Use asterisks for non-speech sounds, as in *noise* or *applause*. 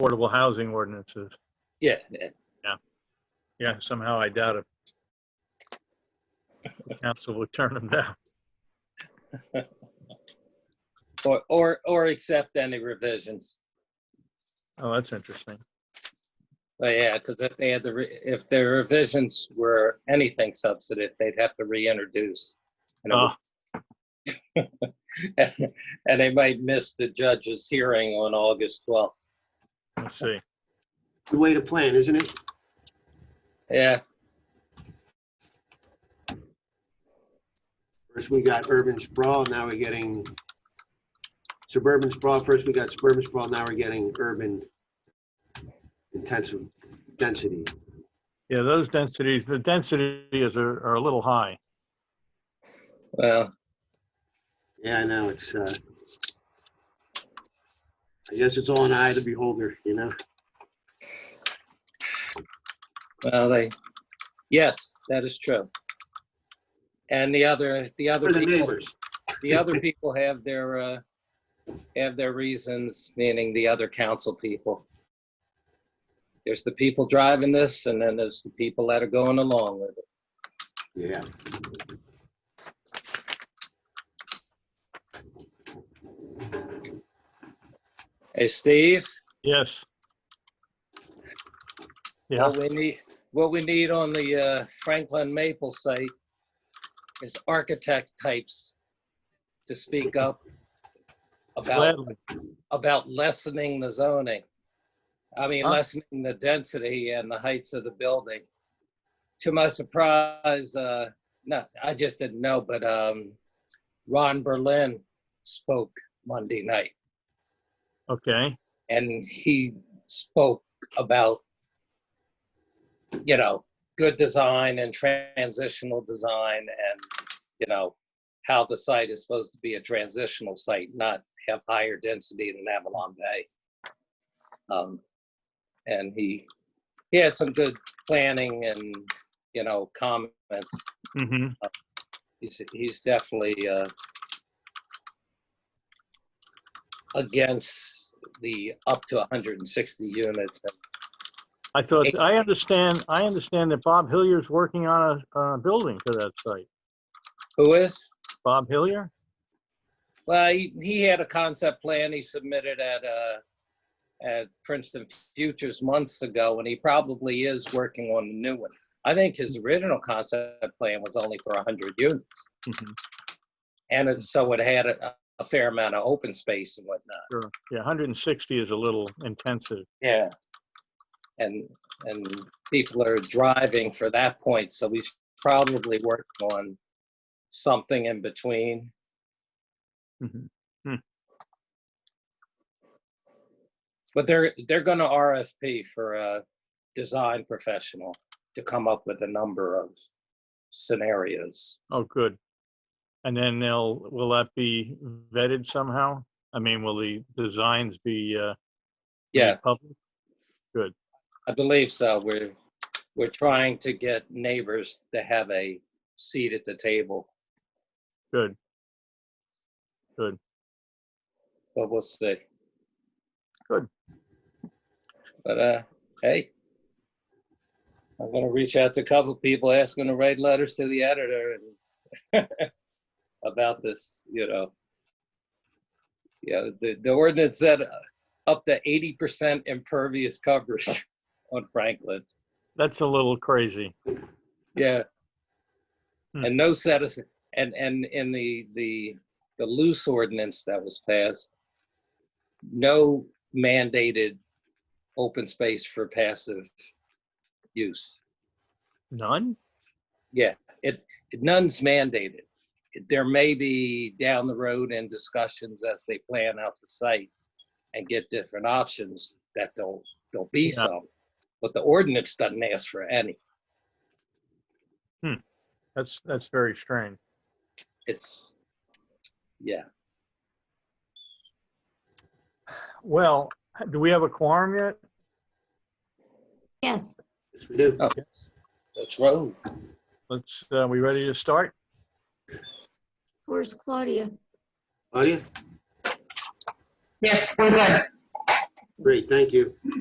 affordable housing ordinances. Yeah, yeah. Yeah, somehow I doubt it. The Council would turn them down. or, or, or accept any revisions. Oh, that's interesting. But Oh, yeah, because if they had the, re- if their revisions were anything substantive, they'd have to reintroduce. And it Oh, would- *laughs* And they might miss the judge's hearing on August 12th. let's see. It's the way to plan, isn't it? Yeah, First, we got urban sprawl, now we're getting suburban sprawl. First, we got suburban sprawl, now we're getting urban intensive density. Yeah, those densities, the densities are, are a little high. well, Yeah, I know, it's, uh, I guess it's all an eye of the beholder, you know? well, they, yes, that is true. And the other, the other For the people, neighbors. the other people have their, uh, have their reasons, meaning the other council people. There's the people driving this and then there's the people that are going along with it. Yeah. Hey, Steve, Yes. Yeah, what we need, what we need on the uh, Franklin Maple site is architect types to speak up about, gladly. about lessening the zoning. I mean, Huh? lessening the density and the heights of the building. To my surprise, uh, no, I just didn't know, but um, Ron Berlin spoke Monday night. Okay, and he spoke about you know good design and transitional design and you know how the site is supposed to be a transitional site not have higher density than avalon bay um, and he he had some good planning and you know comments hmm he's he's definitely uh, against the up to 160 units. I thought, I understand, I understand that Bob Hillier's working on a, on a building for that site. Who is? Bob Hillier? Well, he, he had a concept plan he submitted at uh, at Princeton Futures months ago, and he probably is working on the new one. I think his original concept plan was only for 100 units, Mhm, and it, so it had a, a fair amount of open space and whatnot. Sure. Yeah, 160 is a little intensive. Yeah. And, and people are driving for that point, so he's probably working on something in between. Mhm. But they're, they're gonna RFP for a design professional to come up with a number of scenarios. Oh, good. And then they'll, will that be vetted somehow? I mean, will the designs be, uh, made Yeah, public? I believe so. We're, we're trying to get neighbors to have a seat at the table, Good. but we'll see. Good. But, uh, hey, I'm gonna reach out to a couple people, ask them to write letters to the editor and *laughs* about this, you know. Yeah, the, the ordinance said uh, up to eighty percent impervious coverage *laughs* on Franklin, That's a little crazy. yeah. Hmm. And no citizen, and, and in the, the, the loose ordinance that was passed, no mandated open space for passive use. None? Yeah, it, none's mandated. There may be down the road in discussions as they plan out the site and get different options that there'll, there'll be Yeah. some. But the ordinance doesn't ask for any. That's, that's very strange. It's, yeah. Well, do we have a quorum yet? Yes, Yes, we do. Oh, Let's roll. Let's, uh, we ready to start? where's Claudia? Claudia? Yes, we're good. Great, thank you.